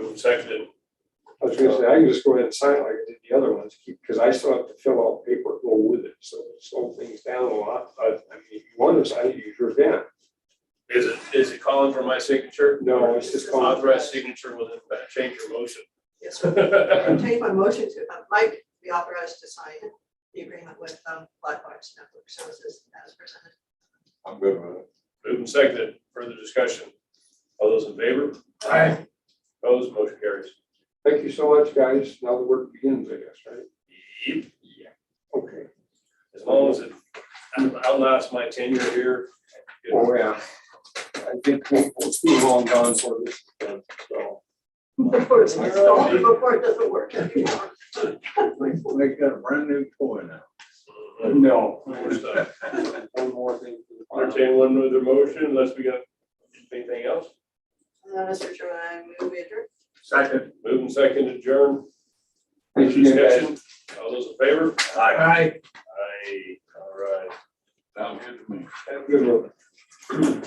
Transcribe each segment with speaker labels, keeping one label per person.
Speaker 1: and seconded.
Speaker 2: I was gonna say, I can just go ahead and sign it like I did the other ones, because I still have to fill out paper, to go with it, so slow things down a lot, but I mean, if you want to sign it, you sure can.
Speaker 1: Is it, is it calling for my signature?
Speaker 2: No, it's just calling-
Speaker 1: Authorized signature with a change your motion.
Speaker 3: Yes, sir. I Take my motion to, uh, Mike, be authorized to sign the agreement with um, Blackhawks Network Services as presented.
Speaker 4: I'm good with it.
Speaker 1: Moved and seconded, further discussion. All those in favor? Aye. Opposed, motion carries.
Speaker 2: Thank you so much, guys, now the work begins, I guess, right?
Speaker 1: Yep.
Speaker 2: Okay.
Speaker 1: As long as it outlasts my tenure here. you know,
Speaker 2: Oh, yeah. I think we- it's too long gone for this, uh, so.
Speaker 3: Before it's installed, before it doesn't work anymore.
Speaker 4: They got a brand new toy now.
Speaker 1: uh,
Speaker 2: No.
Speaker 1: we're stuck.
Speaker 2: One more thing. for the final.
Speaker 1: Entertain one other motion unless we got anything else.
Speaker 3: Uh, Mr. Chairman, I move we adjourn.
Speaker 4: Second.
Speaker 1: Moved and seconded, adjourn.
Speaker 2: Thank you, guys.
Speaker 1: Discussion. All those in favor?
Speaker 4: Aye.
Speaker 1: Aye, all right.
Speaker 4: Sounds good to me.
Speaker 2: Have a good one.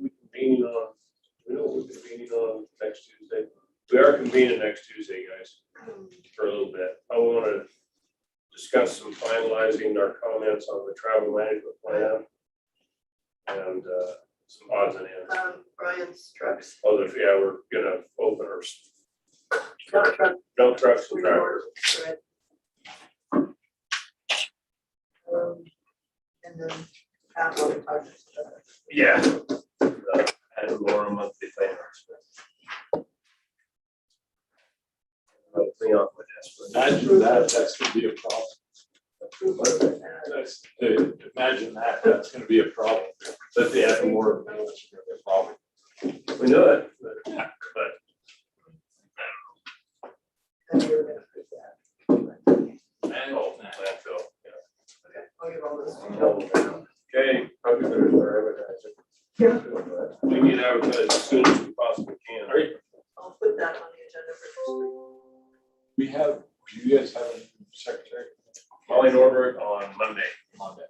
Speaker 1: We convene on, we know we're convening on next Tuesday. We are convening next Tuesday, guys,
Speaker 3: Mm,
Speaker 1: for a little bit. I want to discuss some finalizing our comments on the travel management plan. And uh, some odds and ends.
Speaker 3: Um, Brian's trucks.
Speaker 1: Although, yeah, we're gonna open our s-
Speaker 3: Not truck,
Speaker 1: dump trucks and drivers.
Speaker 3: reorder, right. Um, And then. Outlook, uh,
Speaker 1: Yeah. And more monthly plan. Clean up with this. but-
Speaker 5: Imagine that, that's gonna be a problem. That's, dude, imagine that, that's gonna be a problem, that they have more of those, it's gonna be a problem.
Speaker 1: We know it, but but
Speaker 3: and we were gonna put that.
Speaker 1: Oh, landfill, yeah.
Speaker 3: Okay, I'll give all those.
Speaker 1: Okay,
Speaker 4: I'll do it for advertising.
Speaker 1: we need to advertise as soon as we possibly can. Are you?
Speaker 3: I'll put that on the agenda for
Speaker 5: We have, do you guys have a secretary?
Speaker 1: Molly Norbert on Monday.
Speaker 5: Monday.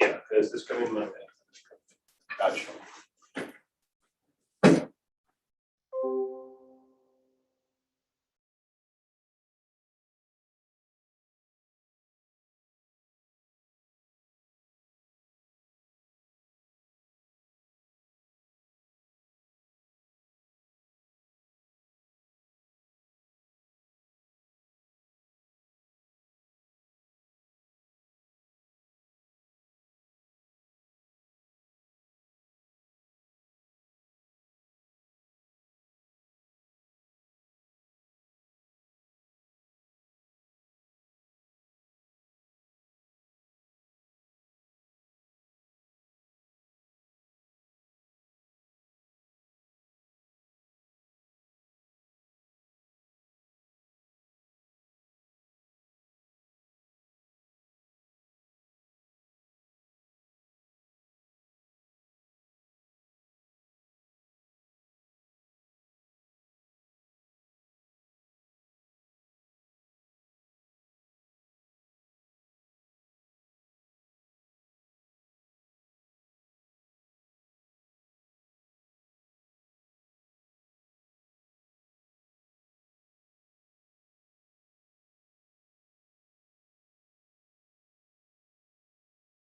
Speaker 1: Yeah, this is coming Monday.